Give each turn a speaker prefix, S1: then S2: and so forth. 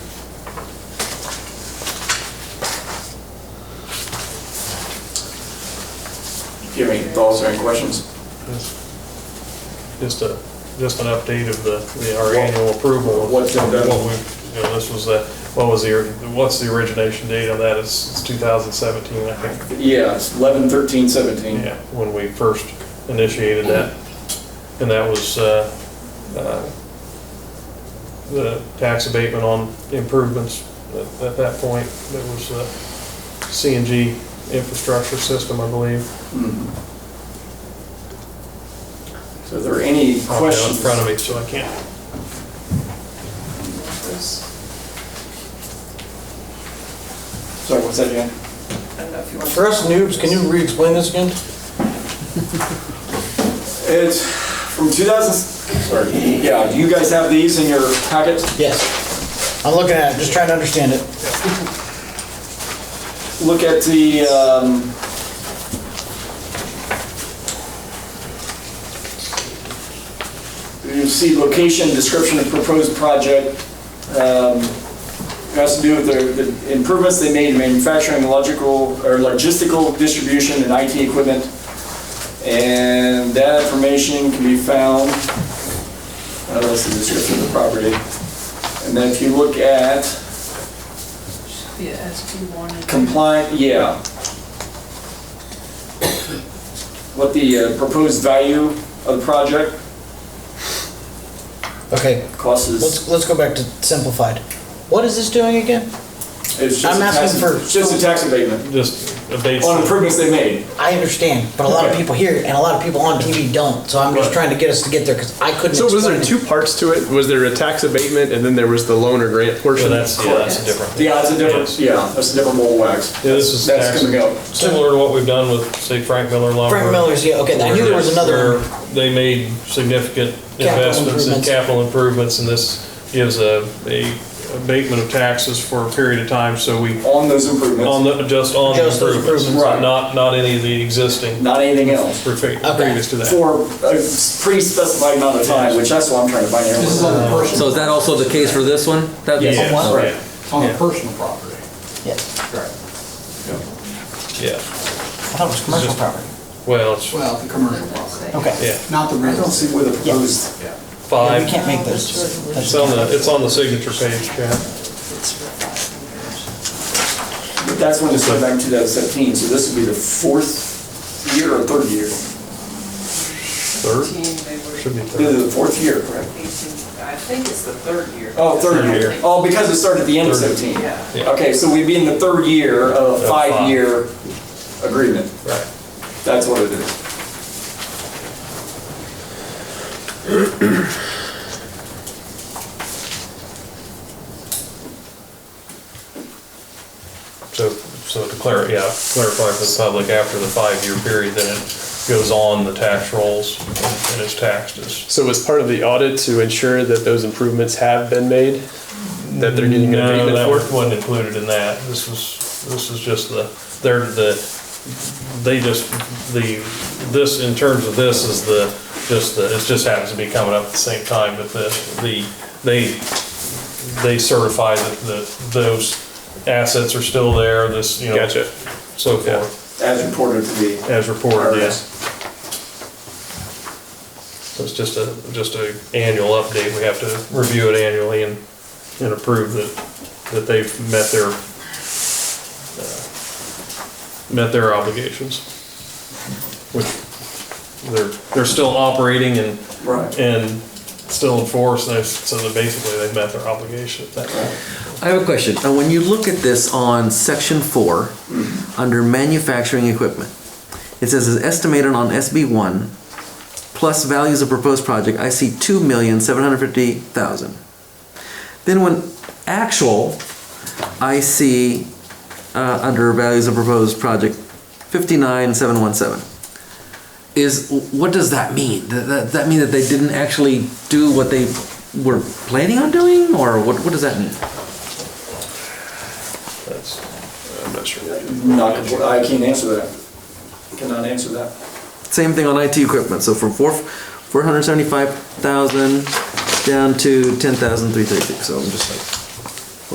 S1: you have any thoughts or any questions?
S2: Just a, just an update of the, the- our annual approval of what
S1: What's been done?
S2: we, you know, this was the, what was the, what's the origination date on that? It's, it's 2017, I think.
S1: Yeah, it's 11, 13, 17.
S2: Yeah, when we first initiated that. And that was uh, uh, the tax abatement on improvements at- at that point. There was the CNG infrastructure system, I believe.
S1: Mhm. So are there any
S2: Probably not In
S1: questions?
S2: front of me, so I can't
S1: Sorry, what's that, Jan?
S3: For us noobs, can you re-explain this again?
S1: It's from 2000, sorry, yeah, do you guys have these in your packet?
S3: Yes. I'm looking at it, just trying to understand it.
S1: Look at the, um, you see location, description of proposed project. um, It has to do with the the improvements they made in manufacturing, logical, or logistical distribution and IT equipment. And that information can be found, uh, that's the description of the property. And then if you look at
S4: Be a SP1 and-
S1: compliant, yeah. What the uh, proposed value of the project
S3: Okay,
S1: costs is,
S3: let's, let's go back to simplified. What is this doing again?
S1: it's just a
S3: I'm
S1: tax,
S3: asking for-
S1: it's just a tax abatement
S2: just abate.
S1: on improvements they made.
S3: I understand, but a lot of people here and a lot of people on TV don't, so I'm just trying to get us to get there because I couldn't
S5: So was there
S3: explain
S5: two
S3: it.
S5: parts to it? Was there a tax abatement and then there was the loan or grant
S2: So
S5: portion?
S2: that's, yeah, that's a different.
S1: Yeah, that's a different, yeah, that's a different mold wax.
S2: Yeah, this is
S1: That's
S2: tax,
S1: gonna go.
S2: similar to what we've done with, say, Frank Miller Lumber.
S3: Frank Miller's, yeah, okay, I knew there was another, one.
S2: Where They made significant
S3: Capital
S2: investments in
S3: improvements.
S2: capital improvements, and this gives a, a abatement of taxes for a period of time, so we,
S1: on those
S2: on
S1: improvements,
S2: the, just on the
S3: Just those
S2: improvements.
S3: improvements.
S1: Right.
S2: Not, not any of the existing
S1: not anything else,
S2: prefi- previous to that.
S1: for a pre-specified amount of time, which that's what I'm trying to find out.
S6: on the
S7: So is that also the case for this one? That-
S2: Yes,
S6: On what?
S2: right,
S6: on the personal property.
S3: yeah,
S2: Yeah,
S3: I thought it was commercial
S2: Just-
S3: property.
S2: well, it's,
S6: Well, the commercial property,
S3: Okay,
S2: yeah,
S6: not the
S1: I
S6: real
S1: don't see where the proposed,
S3: Yeah,
S2: five,
S3: we can't make those.
S2: it's on the, it's on the signature page, Chad.
S1: but that's when it started back in 2017, so this would be the fourth year or third year?
S2: Third,
S4: they were
S2: should be
S1: This
S2: third.
S1: is the fourth year, correct?
S4: 18 I think it's the third year.
S1: Oh, third
S2: Third
S1: year.
S2: year.
S1: Oh, because it started at the end of
S2: Third.
S1: 17.
S4: Yeah.
S2: Yeah.
S1: Okay, so we'd be in the third year of a
S2: Of five.
S1: five-year agreement.
S2: Right.
S1: That's what it is.
S2: So, so to clarify, yeah, clarify for the public, after the five-year period, then it goes on the tax rolls and is taxed as.
S5: So was part of the audit to ensure that those improvements have been made? That they're getting an
S2: No, that
S5: abatement for?
S2: wasn't included in that. This was, this is just the, they're the, they just, the, this, in terms of this is the, just the, it just happens to be coming up at the same time, but the, the, they, they certify that, that those assets are still there, this, you know.
S5: Gotcha.
S2: So forth.
S1: As reported to be.
S2: As reported,
S1: Okay.
S2: yes. So it's just a, just a annual update, we have to review it annually and, and approve that, that they've met their, uh, met their obligations. Which, they're, they're still operating and,
S1: Right.
S2: and still in force, and so that basically they've met their obligation at that point.
S7: I have a question. Now, when you look at this on section four, under manufacturing equipment, it says is estimated on SB one, plus values of proposed project, I see two million, seven hundred fifty thousand. Then when actual, I see, uh, under values of proposed project, fifty-nine, seven one seven. Is, what does that mean? Th- That, that mean that they didn't actually do what they were planning on doing, or what, what does that mean?
S2: That's, I'm not sure.
S1: Not, compl- I can't answer that. Cannot answer that.
S7: Same thing on IT equipment, so from four, four hundred seventy-five thousand down to ten thousand three thirty-six, so I'm just like,